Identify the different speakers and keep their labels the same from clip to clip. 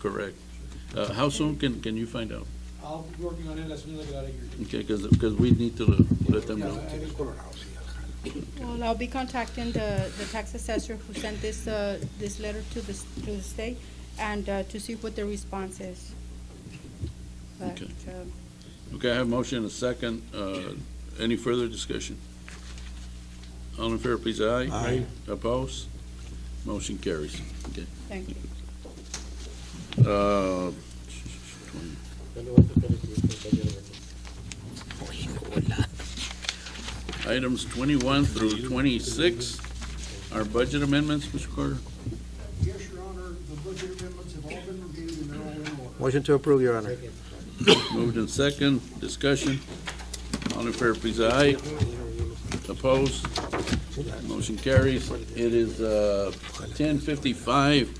Speaker 1: correct. Uh, How soon can, can you find out?
Speaker 2: I'll be working on it as soon as I get out of here.
Speaker 1: Okay, because, we need to let them know.
Speaker 3: Well, I'll be contacting the, the tax assessor who sent this, uh, this letter to the, s- to the state and, uh, to see what the response is. But,
Speaker 1: Okay.
Speaker 3: um,
Speaker 1: Okay, I have a motion and a second. Uh, Any further discussion? All in favor, please, aye. Aye. Oppose? Motion carries. Okay.
Speaker 3: thank you.
Speaker 1: Uh, Items 21 through 26 are budget amendments, Mr. Carter.
Speaker 4: Yes, Your Honor, the budget amendments have all been reviewed and they're all in order.
Speaker 5: Motion to approve, Your Honor.
Speaker 1: Moved in second, discussion. All in favor, please, aye. Opposed? Motion carries. It is uh, 10:55,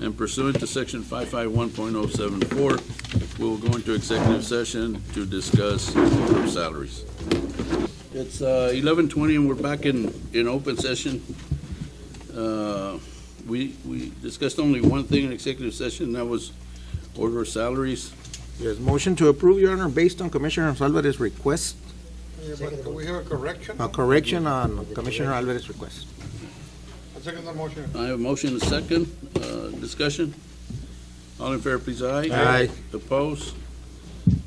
Speaker 1: and pursuant to Section 551.074, we will go into executive session to discuss group salaries. It's uh, 11:20, and we're back in, in open session. Uh, We, we discussed only one thing in executive session, and that was order salaries.
Speaker 5: Yes, motion to approve, Your Honor, based on Commissioner Alvarez's request,
Speaker 4: Yeah, but do we have a correction?
Speaker 5: a correction on Commissioner Alvarez's request.
Speaker 4: I second the motion.
Speaker 1: I have a motion and a second, uh, discussion. All in favor, please, aye.
Speaker 5: Aye.
Speaker 1: Opposed?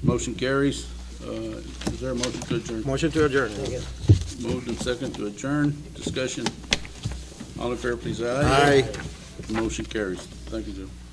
Speaker 1: Motion carries. Uh, Is there a motion to adjourn?
Speaker 5: Motion to adjourn.
Speaker 1: Moved and second to adjourn, discussion. All in favor, please, aye.
Speaker 5: Aye.
Speaker 1: Motion carries. Thank you, Joe.